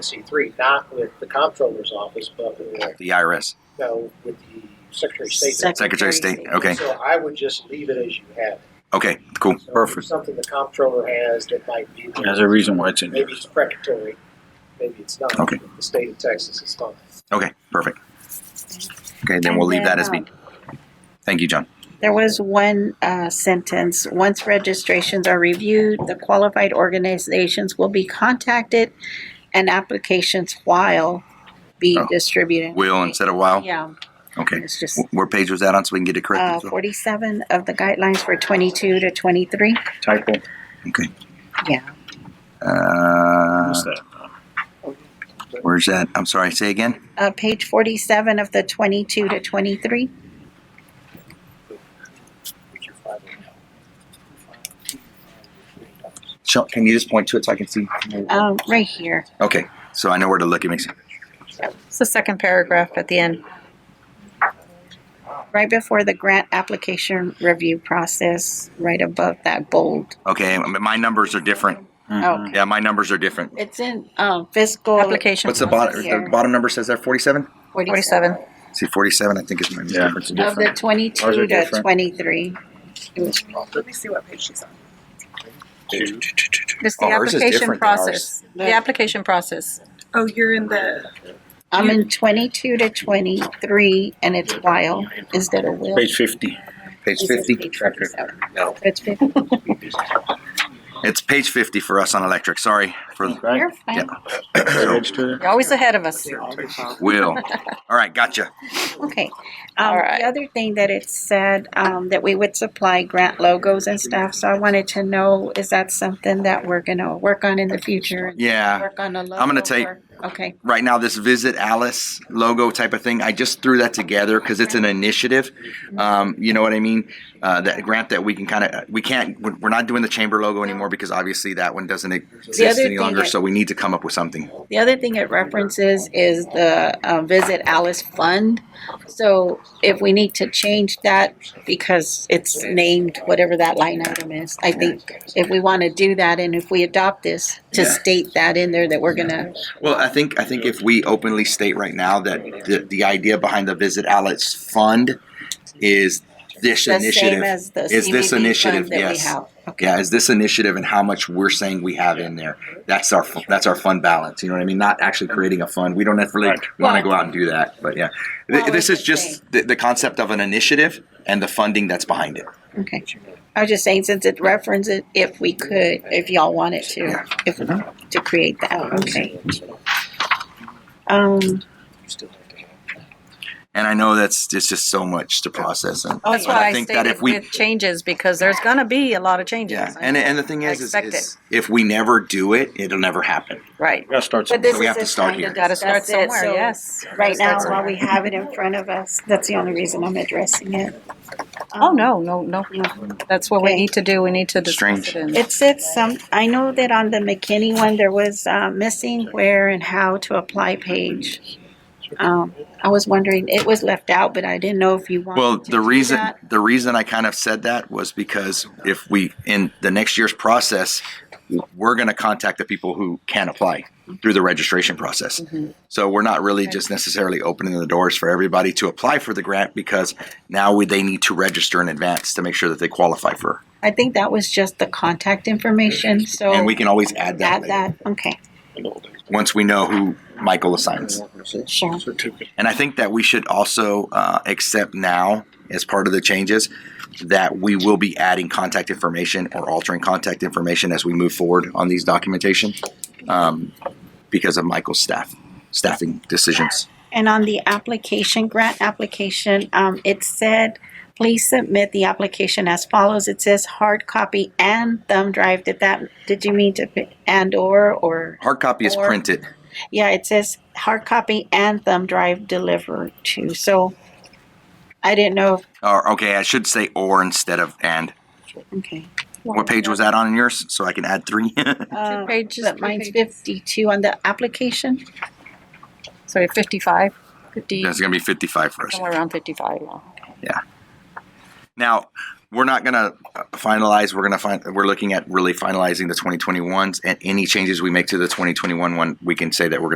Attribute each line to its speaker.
Speaker 1: C three, not with the comptroller's office, but with,
Speaker 2: The IRS,
Speaker 1: no, with the Secretary of State.
Speaker 2: Secretary of State. Okay,
Speaker 1: So I would just leave it as you have. it.
Speaker 2: okay, cool.
Speaker 1: So if
Speaker 3: Perfect.
Speaker 1: Something the comptroller has that might be.
Speaker 3: There's a reason why it's in there.
Speaker 1: Maybe it's precatory, maybe it's not.
Speaker 2: Okay.
Speaker 1: The state of Texas is fine.
Speaker 2: Okay, perfect. Okay, then we'll leave that as be.
Speaker 4: um,
Speaker 2: Thank you, John.
Speaker 4: There was one uh, sentence, once registrations are reviewed, the qualified organizations will be contacted and applications while be
Speaker 2: Oh.
Speaker 4: distributed.
Speaker 2: Will instead of while?
Speaker 4: Yeah,
Speaker 2: Okay.
Speaker 4: it's just
Speaker 2: Wh- Where page was that on so we can get it
Speaker 4: uh,
Speaker 2: corrected?
Speaker 4: forty-seven of the guidelines for twenty-two to twenty-three.
Speaker 3: Typo.
Speaker 2: Okay.
Speaker 4: Yeah.
Speaker 2: Uh,
Speaker 3: What's that?
Speaker 2: where's that? I'm sorry, say again?
Speaker 4: Uh, page forty-seven of the twenty-two to twenty-three.
Speaker 1: Which you're fine with now.
Speaker 2: Shel- Can you just point to it so I can see?
Speaker 4: Um, right here.
Speaker 2: Okay, so I know where to look. It makes
Speaker 5: It's the second paragraph at the end.
Speaker 4: right before the grant application review process, right above that bold.
Speaker 2: Okay, m- my numbers are different.
Speaker 4: Oh,
Speaker 2: Yeah, my numbers are different.
Speaker 4: It's in um, fiscal.
Speaker 5: Application.
Speaker 2: What's the bottom? The bottom number says there 47.
Speaker 5: Forty-seven.
Speaker 2: See, 47. I think is my
Speaker 3: Yeah,
Speaker 2: difference.
Speaker 3: it's
Speaker 4: Of the
Speaker 3: different. Ours are
Speaker 4: twenty-two to
Speaker 3: different.
Speaker 4: twenty-three. It was-
Speaker 6: Let me see what page she's on.
Speaker 5: It's the
Speaker 2: Ours is
Speaker 5: application
Speaker 2: different than ours.
Speaker 5: process. The application process.
Speaker 6: Oh, you're in the,
Speaker 4: I'm in twenty-two to twenty-three, and it's while instead of will.
Speaker 3: Page fifty.
Speaker 2: Page
Speaker 4: It says
Speaker 2: 50.
Speaker 4: page 47.
Speaker 1: No.
Speaker 4: It's fifty.
Speaker 2: It's page 50 for us on electric. Sorry for
Speaker 3: Right?
Speaker 4: You're fine.
Speaker 3: Register.
Speaker 5: You're always ahead of us.
Speaker 2: Will. All right, gotcha.
Speaker 4: Okay.
Speaker 5: All
Speaker 4: Um,
Speaker 5: right.
Speaker 4: the other thing that it said, um, that we would supply grant logos and stuff, so I wanted to know, is that something that we're gonna work on in the future?
Speaker 2: Yeah.
Speaker 4: Work on a logo?
Speaker 2: Uh, I'm gonna take-
Speaker 4: or- Okay,
Speaker 2: Right now, this Visit Alice logo type of thing, I just threw that together because it's an initiative. Um, you know what I mean? Uh, that grant that we can kind of, we can't, we're we're not doing the chamber logo anymore because obviously that one doesn't exist
Speaker 4: other
Speaker 2: any
Speaker 4: thing
Speaker 2: longer.
Speaker 4: that-
Speaker 2: So we need to come up with something.
Speaker 4: the other thing it references is the, uh, Visit Alice Fund. So if we need to change that, because it's named whatever that line item is, I think if we wanna do that, and if we adopt this, to
Speaker 2: Yeah.
Speaker 4: state that in there, that we're gonna,
Speaker 2: Well, I think I think if we openly state right now that the, the idea behind the Visit Alice Fund is this
Speaker 4: the same
Speaker 2: initiative.
Speaker 4: as the
Speaker 2: Is this
Speaker 4: CVB
Speaker 2: initiative?
Speaker 4: fund that we
Speaker 2: Yes.
Speaker 4: have. Okay.
Speaker 2: yeah, is this initiative and how much we're saying we have in there? That's our fu- that's our fund balance. You know what I mean? Not actually creating a fund. We don't have really
Speaker 3: Right.
Speaker 2: want to go out and do that. But yeah, Th-
Speaker 4: Well,
Speaker 2: this
Speaker 4: it's
Speaker 2: is
Speaker 4: the same.
Speaker 2: just the, the concept of an initiative and the funding that's behind it.
Speaker 4: Okay. I was just saying, since it references, if we could, if y'all wanted to, if, to create that, okay. Um,
Speaker 2: And I know that's it's just so much to process. And
Speaker 4: Oh,
Speaker 5: That's
Speaker 2: but
Speaker 5: why I
Speaker 2: Oh, think that
Speaker 5: stated
Speaker 2: if we
Speaker 5: with changes, because there's gonna be a lot of changes.
Speaker 2: yeah, and and the thing
Speaker 5: I
Speaker 2: is, is,
Speaker 5: expect
Speaker 2: is if we never do it, it'll never happen.
Speaker 5: Right.
Speaker 3: Gotta start
Speaker 4: but
Speaker 3: somewhere.
Speaker 4: this
Speaker 2: we have
Speaker 4: is
Speaker 2: to
Speaker 4: a
Speaker 2: start
Speaker 4: time
Speaker 2: here.
Speaker 4: to
Speaker 5: Gotta start
Speaker 4: discuss it,
Speaker 5: somewhere,
Speaker 4: so
Speaker 5: yes.
Speaker 4: Right now,
Speaker 5: Start
Speaker 4: while
Speaker 5: somewhere.
Speaker 4: we have it in front of us, that's the only reason I'm addressing it.
Speaker 5: Oh, no, no, no, no. That's what we
Speaker 4: Okay.
Speaker 5: need to do. We need to discuss
Speaker 2: Strange.
Speaker 5: it. and-
Speaker 4: It said some, um, I know that on the McKinney one, there was, uh, missing where and how to apply page. Um, I was wondering, it was left out, but I didn't know if you wanted
Speaker 2: Well,
Speaker 4: to
Speaker 2: the
Speaker 4: do
Speaker 2: reason
Speaker 4: that.
Speaker 2: the reason I kind of said that was because if we in the next year's process, we're going to contact the people who can apply through the registration process.
Speaker 4: Mm-hmm.
Speaker 2: So we're not really just necessarily opening the doors for everybody to apply for the grant because now we, they need to register in advance to make sure that they qualify for.
Speaker 4: I think that was just the contact information, so.
Speaker 2: and we can always add that,
Speaker 4: Oh. Add
Speaker 2: later,
Speaker 4: that, okay,
Speaker 2: once we know who Michael assigns.
Speaker 4: sure.
Speaker 2: And I think that we should also uh, accept now, as part of the changes, that we will be adding contact information or altering contact information as we move forward on these documentation um, because of Michael's staff, staffing decisions.
Speaker 4: And on the application, grant application, um, it said, please submit the application as follows. It says hard copy and thumb drive. Did that, did you mean to, put and or, or?
Speaker 2: Hard copy is
Speaker 4: Or-
Speaker 2: printed.
Speaker 4: Yeah, it says hard copy and thumb drive delivered to, so I didn't know, if-
Speaker 2: Or, okay, I should say or instead of and.
Speaker 4: okay.
Speaker 2: What page was that on in yours? So I can add three.
Speaker 4: Uh,
Speaker 5: pages,
Speaker 4: But
Speaker 5: three
Speaker 4: mine's
Speaker 5: pages.
Speaker 4: fifty-two on the application.
Speaker 5: So fifty-five, fifty,
Speaker 2: That's going to be 55 for us.
Speaker 5: somewhere around fifty-five. yeah.
Speaker 2: Now, we're not going to finalize, we're going to find, we're looking at really finalizing the 2021s and any changes we make to the 2021 one, we can say that we're